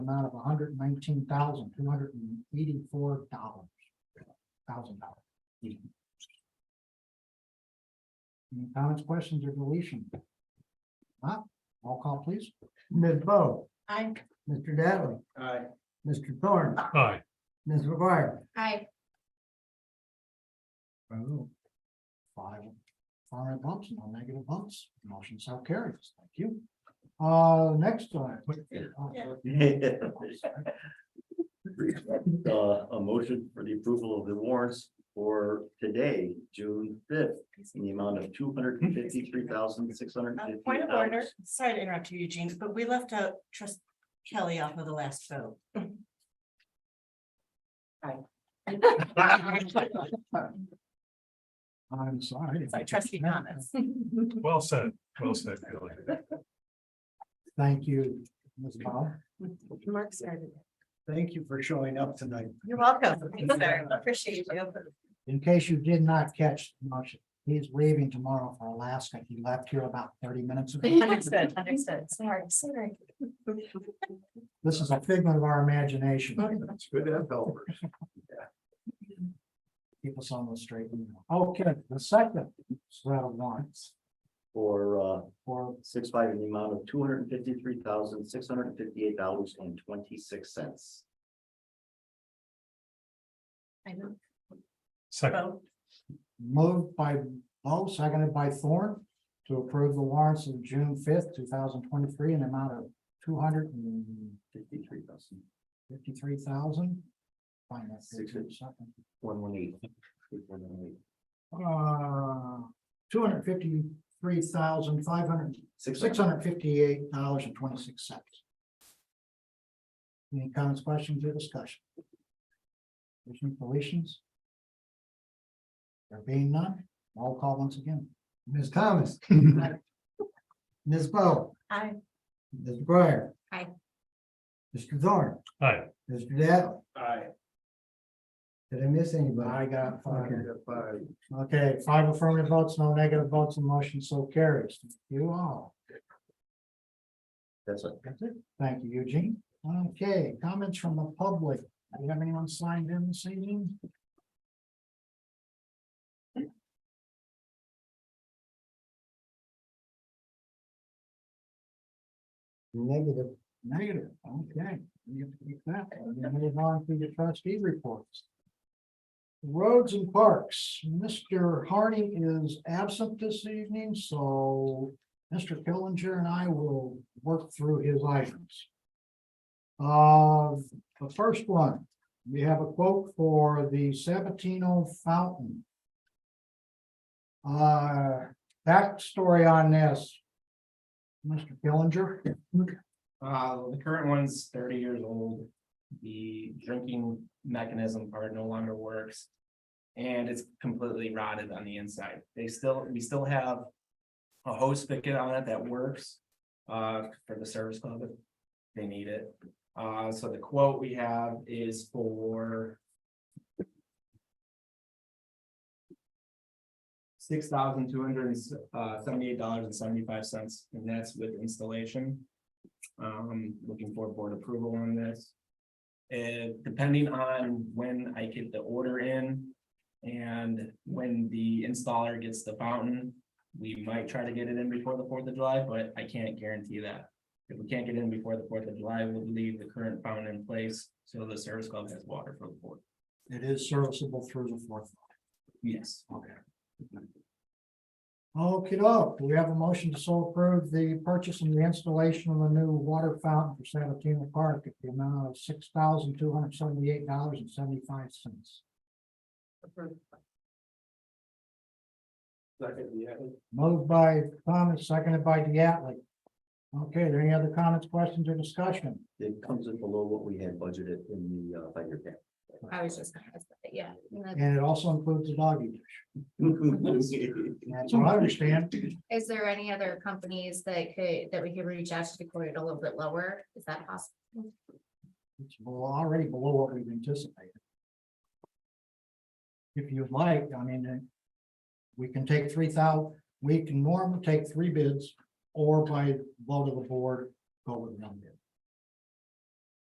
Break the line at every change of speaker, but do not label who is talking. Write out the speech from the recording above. amount of hundred and nineteen thousand, two hundred and eighty-four dollars. Thousand dollars. Any comments, questions, or deletion? Not, roll call please.
Ms. Bo,
Aye.
Mr. Dattley,
Aye.
Mr. Thorne,
Aye.
Ms. McGuire.
Aye.
oh. Five, five bumps, no negative bumps, motion so carries, thank you. Uh, next one.
Yeah.
Uh, a motion for the approval of the warrants for today, June fifth, in the amount of two hundred and fifty-three thousand, six hundred
Uh,
and fifty
Point of order,
dollars.
sorry to interrupt you, Eugene, but we left out trust Kelly off of the last vote.
I'm sorry.
Sorry, trustee Thomas.
Well said, well said, Kelly.
Thank you, Ms. Bob.
Mark started.
Thank you for showing up tonight.
You're welcome. Thanks, sir. Appreciate you.
In case you did not catch the motion, he is leaving tomorrow for Alaska. He left here about thirty minutes ago.
Understood, understood. Sorry, sorry.
This is a figment of our imagination.
It's good to have helpers.
Keep us on the straight. and narrow. Okay, the second set of warrants
For, uh,
for
six five in the amount of two hundred and fifty-three thousand, six hundred and fifty-eight dollars and twenty-six cents.
I move
Second,
vote.
moved by Bo, seconded by Thorne to approve the warrants of June fifth, two thousand twenty-three, in the amount of two hundred and
Fifty-three thousand,
fifty-three thousand. Finance. Second.
one one eight.
Uh, two hundred fifty-three thousand, five hundred, six hundred fifty-eight dollars and twenty-six cents. Any comments, questions, or discussion? There's no deletions? There being none, roll call once again.
Ms. Thomas. Ms. Bo,
Aye.
Ms. McGuire.
Aye.
Mr. Thorne,
aye,
Mr. Dattley,
Aye.
did I miss anybody?
I got five.
Okay.
Okay, five affirmative votes, no negative votes, and motion so carries. Thank You all.
That's it.
That's it. Thank you, Eugene. Okay, comments from the public. Do you have anyone signed in this evening?
Negative.
Negative, okay. We have to keep that. We're gonna Move on to the trustee reports. Roads and parks, Mr. Harding is absent this evening, so Mr. Killinger and I will work through his items. Uh, the first one, we have a quote for the Sabatino Fountain. Uh, backstory on this. Mr. Killinger.
Uh, the current one's thirty years old. The drinking mechanism part no longer works. And it's completely rotted on the inside. They still, we still have. A hose spigot on it that works. Uh, for the service club. if They need it. Uh, so the quote we have is for. Six thousand two hundred and seventy-eight dollars and seventy-five cents, and that's with installation. Um, looking for board approval on this. And depending on when I get the order in. And when the installer gets the fountain, we might try to get it in before the Fourth of July, but I can't guarantee that. If we can't get in before the Fourth of July, we'll leave the current fountain in place, so the service club has water for the board.
It is serviceable through the fourth.
Yes.
Okay. Okay, do we have a motion to so approve the purchase and the installation of a new water fountain for Sabatino Park at the amount of six thousand two hundred seventy-eight dollars and seventy-five cents. Moved by Thomas, seconded by Diatley. Okay, are there any other comments, questions, or discussion?
It comes in below what we had budgeted in the uh, five-year plan.
I was just, yeah.
And it also includes the doggy dish. That's what I understand.
Is there any other companies that could, that we could reach out to to quote it a little bit lower? Is that possible?
It's bel- already below what we've anticipated. If you'd like, I mean, uh, we can take three thousand, we can normally take three bids or by vote of the board, go with one bid.